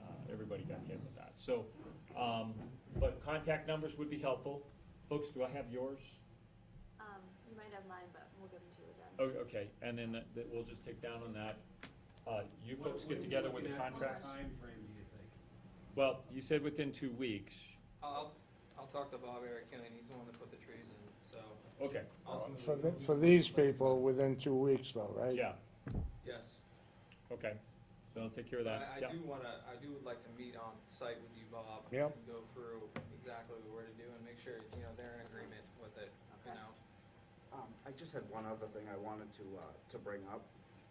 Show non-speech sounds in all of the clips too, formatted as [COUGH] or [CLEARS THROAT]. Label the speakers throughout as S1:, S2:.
S1: Uh, everybody got hit with that. So, um, but contact numbers would be helpful. Folks, do I have yours?
S2: Um, you might have mine, but we'll give them to you again.
S1: Oh, okay, and then that- that we'll just take down on that. Uh, you folks get together with the contracts?
S3: Time frame, do you think?
S1: Well, you said within two weeks.
S4: I'll, I'll talk to Bob Eric Killian, he's the one that put the trees in, so
S1: Okay,
S5: Uh,
S4: ultimately.
S5: For, the- for these people, within two weeks though, right?
S1: yeah,
S4: Yes,
S1: okay. So I'll take care of
S4: I,
S1: that.
S4: I
S1: Yeah.
S4: do wanna, I do would like to meet on site with you, Bob.
S5: Yep.
S4: And go through exactly what we're to do and make sure, you know, they're in agreement with it, you
S2: Okay.
S4: know?
S6: Um, I just had one other thing I wanted to, uh, to bring up,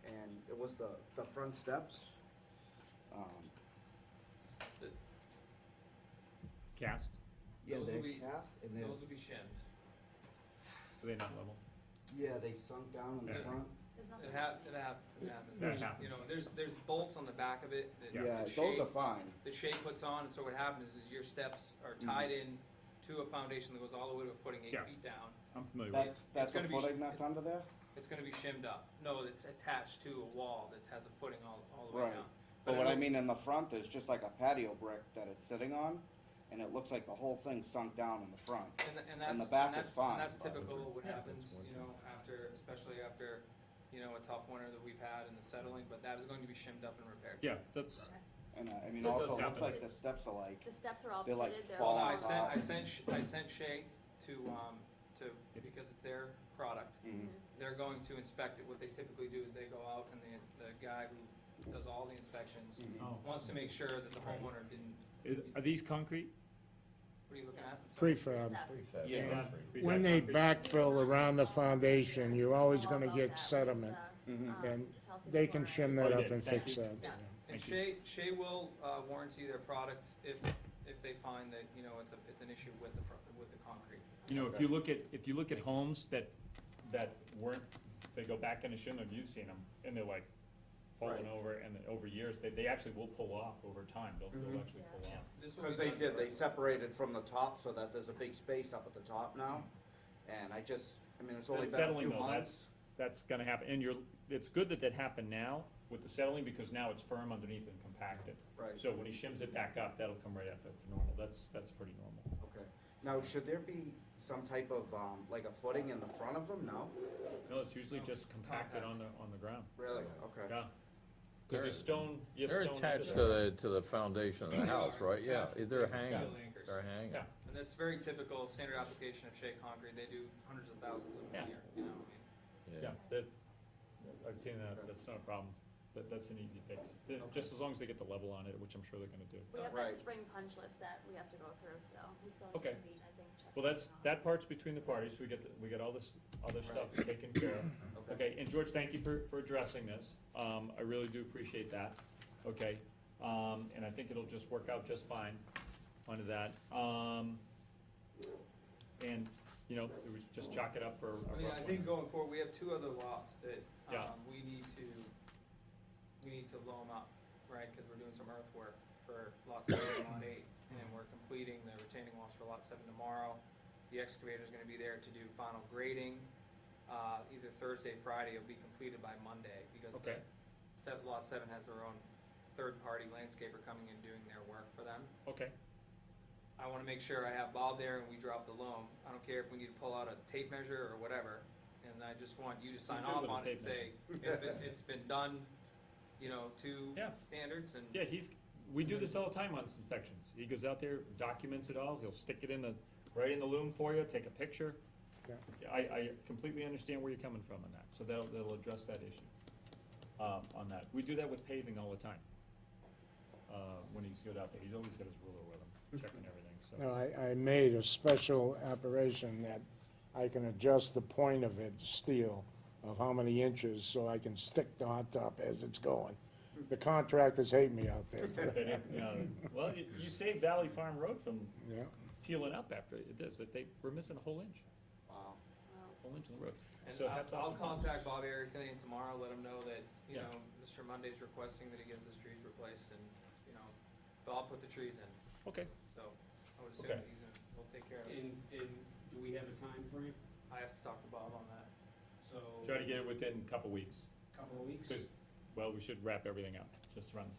S6: and it was the, the front steps. Um,
S1: Cast,
S6: Yeah,
S4: Those will
S6: they're
S4: be-
S6: cast and they're,
S4: Those will be shimmed.
S1: are they not level?
S6: yeah, they sunk down in the
S1: Yeah.
S6: front.
S2: There's
S4: It
S2: nothing.
S4: hap, it hap, it happens.
S1: That happens.
S4: You know, there's, there's bolts on the back of it that
S6: Yeah,
S4: the
S6: those
S4: shape,
S6: are fine.
S4: the shape puts on, and so what happens is your steps are
S6: Mm-hmm.
S4: tied in to a foundation that goes all the way to a footing eight
S1: Yeah.
S4: feet down.
S1: I'm familiar with it.
S6: That's, that's the
S4: gonna be-
S6: footing that's under there?
S4: It's gonna be shimmed up. No, it's attached to a wall that has a footing all, all the way
S6: Right.
S4: down.
S6: But what I
S4: don't-
S6: mean in the front is just like a patio brick that it's sitting on, and it looks like the whole thing sunk down in the front.
S4: And, and
S6: and
S4: that's,
S6: the
S4: and
S6: back
S4: that's,
S6: is fine,
S4: and that's
S6: but-
S4: typical of what happens, you know, after, especially after, you know, a tough winter that we've had and the settling, but that is going to be shimmed up and repaired.
S1: Yeah, that's,
S6: And, uh, I mean,
S1: That does
S6: also, it looks
S1: happen.
S6: like the steps are like,
S2: The steps are all
S6: They're, like,
S2: pitted, they're
S4: Well,
S2: all.
S4: no, I
S6: Falling
S4: sent, I
S6: off.
S4: sent, Sh- I sent Shay to, um, to, because it's their product.
S6: mhm.
S4: They're going to inspect it. What they typically do is they go out and the, the guy who does all the inspections
S6: mm-hmm.
S1: oh.
S4: wants to make sure that the homeowner didn't,
S1: Is- Are these concrete?
S4: what are you looking at?
S2: Yes.
S5: Prefab.
S2: Steps.
S6: yeah,
S5: When they backfill around the foundation, you're always
S2: All
S5: gonna
S2: above
S5: get
S2: that was
S5: sediment.
S2: the, um,
S5: and
S2: calcium
S5: They can
S2: chloride.
S5: shim that
S1: Oh,
S5: up
S1: yeah,
S5: and
S1: thank
S5: fix
S1: you.
S5: that.
S2: Yeah.
S1: Thank
S4: And Shay, Shay will, uh, warranty their product if, if they find that, you know, it's a, it's an issue with the, pro- with the concrete.
S1: You know, if you look at, if you look at homes that, that weren't, they go back in and shouldn't have, you've seen them, and they're like falling over, and then over years, they, they actually will pull off over time, they'll, they'll actually pull off.
S4: This will be
S6: Because they
S4: done
S6: did, they
S4: correctly.
S6: separated from the top so that there's a big space up at the top now. And I just, I mean, it's only
S1: That's
S6: been a few
S1: settling
S6: months.
S1: though, that's, that's gonna happen, and you're, it's good that that happened now with the settling, because now it's firm underneath and compacted.
S6: Right.
S1: So when he shims it back up, that'll come right up to normal, that's, that's pretty normal.
S6: Okay. Now, should there be some type of, um, like a footing in the front of them? No?
S1: No, it's usually just compacted on the, on the ground,
S6: Really? Okay.
S1: yeah. Cause there's stone, you have
S7: They're
S1: stone. under
S7: attached to
S1: there.
S7: the, to the foundation [CLEARS THROAT] of the house, right? Yeah, they're hanging,
S4: Steel anchors.
S7: they're hanging.
S1: Yeah.
S4: And that's very typical of standard application of Shea concrete. They do hundreds of thousands of
S1: Yeah.
S4: them a year, you know, what I mean?
S1: Yeah, that, I've seen that, that's not a problem, that, that's an easy fix, Yeah, just as long as they get the level on it, which I'm sure they're gonna do.
S2: We have that
S6: Right.
S2: spring punch list that we have to go through still, we still need
S1: Okay.
S2: to meet, I think, check.
S1: Well, that's,
S2: it out.
S1: that part's between the parties, we get, the- we get all this other stuff taken care of. Okay, and George, thank you for, for addressing this, um, I really do appreciate that, okay? Um, and I think it'll just work out just fine onto that, um, and, you know, we would just chalk it up for a rough
S4: I mean, I
S1: one.
S4: think going forward, we have two other lots that,
S1: Yeah.
S4: um, we need to, we need to loam up, right? Cause we're doing some earthwork for lot seven and lot eight, and then we're completing the retaining walls for lot seven tomorrow. The excavator's gonna be there to do final grading, uh, either Thursday, Friday, it'll be completed by Monday, because the
S1: Okay.
S4: set, lot seven has their own third-party landscaper coming and doing their work for them.
S1: Okay,
S4: I wanna make sure I have Bob there and we drop the loam. I don't care if we need to pull out a tape measure or whatever. And I just want you to sign
S1: do it
S4: off
S1: with a
S4: on it
S1: tape
S4: and say, it's been, it's been done, you know, to
S1: Yeah.
S4: standards and.
S1: Yeah, he's, we do this all the time on inspections. He goes out there, documents it all, he'll stick it in the, right in the loom for you, take a picture.
S5: Yeah.
S1: I, I completely understand where you're coming from on that, so that'll, that'll address that issue, um, on that. We do that with paving all the time. Uh, when he's good out there, he's always got his ruler with him,
S5: [LAUGHS]
S1: checking everything, so.
S5: No, I, I made a special operation that I can adjust the point of it, steel, of how many inches, so I can stick the hot top as it's going. The contractors hate me out there
S1: [LAUGHS]
S5: for that,
S1: But it, uh, Well, you, you saved Valley Farm Road from
S5: yeah.
S1: peeling up after this, that they were missing a whole inch,
S6: Wow.
S2: Well,
S1: whole inch of the road.
S4: And
S1: So
S4: I'll,
S1: hats
S4: I'll
S1: off.
S4: contact Bob Erickillian tomorrow, let him know that, you
S1: Yeah.
S4: know, Mr. Monday's requesting that he gets his trees replaced and, you know, but I'll put the trees in,
S1: Okay,
S4: so I would assume
S1: Okay.
S4: that he's gonna, he'll take care of it.
S3: And, and do we have a time frame?
S4: I have to talk to Bob on that.
S3: So.
S1: try to get it within a couple weeks.
S3: Couple of weeks?
S1: Because, well, we should wrap everything up, just around the